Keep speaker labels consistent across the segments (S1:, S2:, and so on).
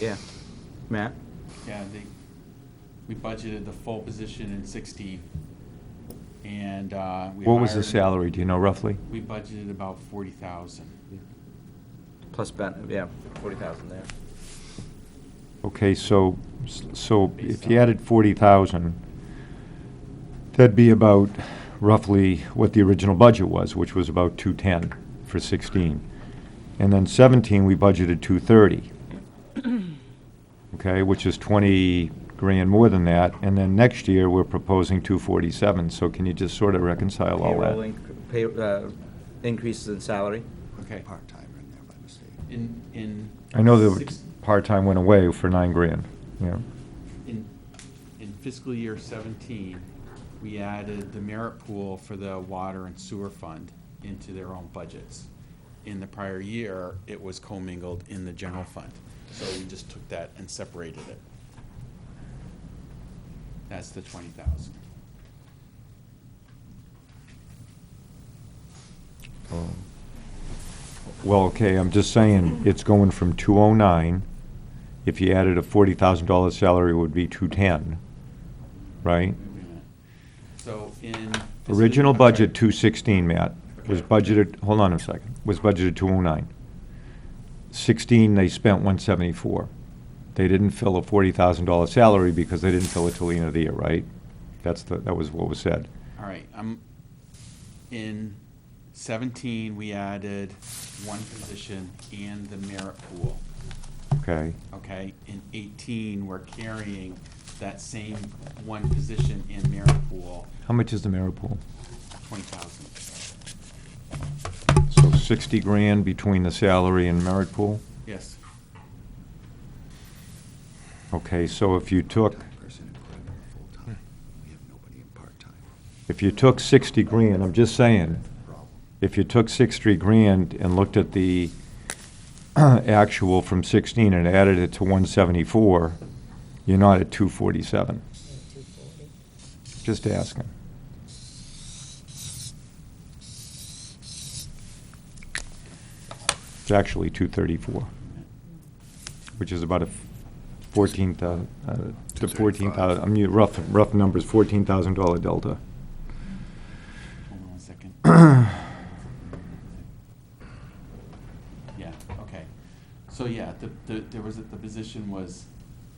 S1: Yeah. Matt?
S2: Yeah, they, we budgeted the full position in sixteen, and, uh, we
S3: What was the
S2: hired-
S3: salary, do you know roughly?
S2: We budgeted about forty thousand.
S1: Plus Ben, yeah, forty thousand there.
S3: Okay, so, so if
S2: Based
S3: you
S2: on-
S3: added forty thousand, that'd be about roughly what the original budget was, which was about two-ten for sixteen. And then seventeen, we budgeted two-thirty. Okay, which is twenty grand more than that, and then next year, we're proposing two forty-seven, so can you just sort of reconcile all
S1: Payroll,
S3: Oh, that?
S1: inc- pay, uh, increases in salary.
S2: Okay.
S4: Part-timer in there by mistake.
S2: In, in.
S3: I know the
S2: six-
S3: part-time went away for nine grand, yeah.
S2: In, in fiscal year seventeen, we added the merit pool for the water and sewer fund into their own budgets. In the prior year, it was commingled in the general fund, so we just took that and separated it. That's the twenty thousand.
S3: Um, Well, okay, I'm just saying, it's going from 209, if you added a $40,000 salary, it would be 210, right?
S2: So in. fiscal-
S3: Original
S2: I'm sorry.
S3: budget, 216, Matt, was
S2: Okay.
S3: budgeted, hold on a second, was budgeted 209. 16, they spent 174. They didn't fill a $40,000 salary because they didn't fill it till the end of the year, right? That's the, that was what was said.
S2: All right, I'm, in seventeen, we added one position and the merit pool.
S3: Okay,
S2: okay? In eighteen, we're carrying that same one position in merit pool,
S3: how much is the merit pool?
S2: twenty thousand.
S3: So 60 grand between the salary and merit pool?
S2: Yes,
S3: Okay, so if you took,
S4: Part-time Person and put him in full-time. We have nobody in part-time.
S3: if you took 60 grand, I'm just saying,
S4: Problem.
S3: if you took 60 grand and looked at the actual from 16 and added it to 174, you're not at 247. Just asking. It's actually 234, which is about a 14,000, uh, to 14,000, I mean, rough, rough numbers, $14,000 delta.
S2: hold on one second. Yeah, okay. So, yeah, the, the, there was, a- the position was,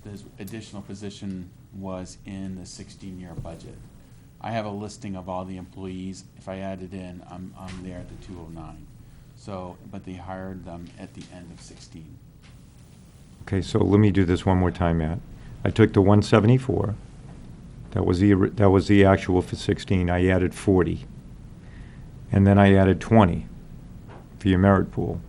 S2: this additional position was in the sixteen-year budget. I have a listing of all the employees. If I add it in, I'm, I'm there at the two oh nine. So, but they hired them at the end of sixteen.
S3: Okay, so let me do this one more time, Matt. I took the 174, that was the, ori- that was the actual for 16, I added 40. And then I added 20 for your merit pool.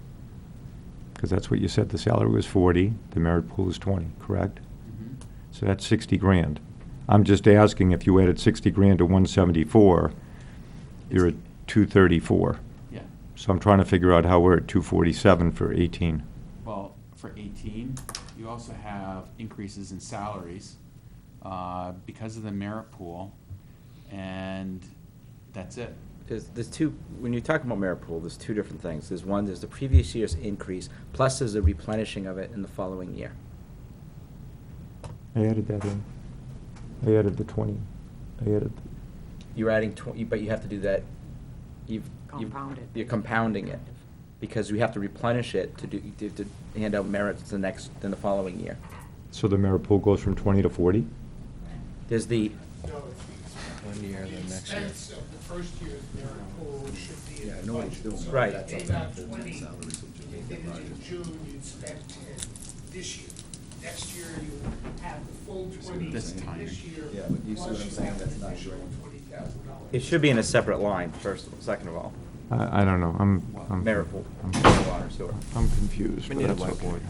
S3: Because that's what you said, the salary was 40, the merit pool is 20, correct?
S2: Mhm.
S3: So that's 60 grand. I'm just asking if you added 60 grand to 174, you're at 234.
S2: Yeah,
S3: So I'm trying to figure out how we're at 247 for 18.
S2: well, for eighteen, you also have increases in salaries, uh, because of the merit pool, and that's it.
S1: There's, there's two, when you talk about merit pool, there's two different things. There's one, there's the previous year's increase, plus there's a replenishing of it in the following year.
S3: I added that in. I added the twenty. I added,
S1: You're adding twenty, but you have to do that, you've. you've-
S5: Compounded.
S1: You're compounding it, because you have to replenish it to do, to, to hand out merits the next, in the following year.
S3: so the merit pool goes from twenty to forty?
S1: There's the,
S4: One year, then next year.
S6: expense of the first year's merit pool should be
S4: Yeah,
S6: in the
S4: nobody's
S6: budget.
S4: doing that.
S1: Right.
S4: That's
S6: It's
S4: on
S6: not
S4: the
S6: twenty,
S4: salaries
S6: if
S4: of
S6: it
S4: the
S6: is
S4: budget.
S6: in June, you'd spend ten this year. Next year, you have the full twenty
S2: This time.
S6: this year.
S4: Yeah, but you see what
S6: plus
S4: I'm
S6: you
S4: saying?
S6: have
S4: That's
S6: an
S4: not
S6: additional
S4: right.
S6: $20,000.
S1: it should be in a separate line, first, of all- second of all,
S3: I, I don't know, I'm, I'm.
S1: merit pool,
S3: I'm-
S1: water, sewer.
S3: I'm confused,
S7: We
S3: but
S7: need a
S3: that's okay.
S7: whiteboard.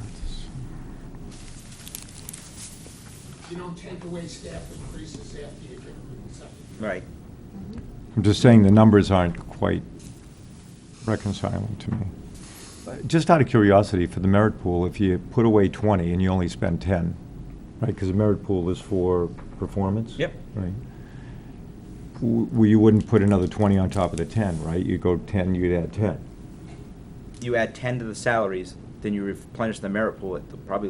S6: You don't take away staff increases after you get rid of something.
S1: Right.
S3: I'm just saying the numbers aren't quite reconciling to me. Uh, Just out of curiosity, for the merit pool, if you put away twenty and you only spend ten, right, because the merit pool is for performance?
S1: Yep.
S3: Right. W- Well, you wouldn't put another twenty on top of the ten, right? You go ten, you'd add ten.
S1: You add ten to the salaries, then you replenish the merit pool at the- probably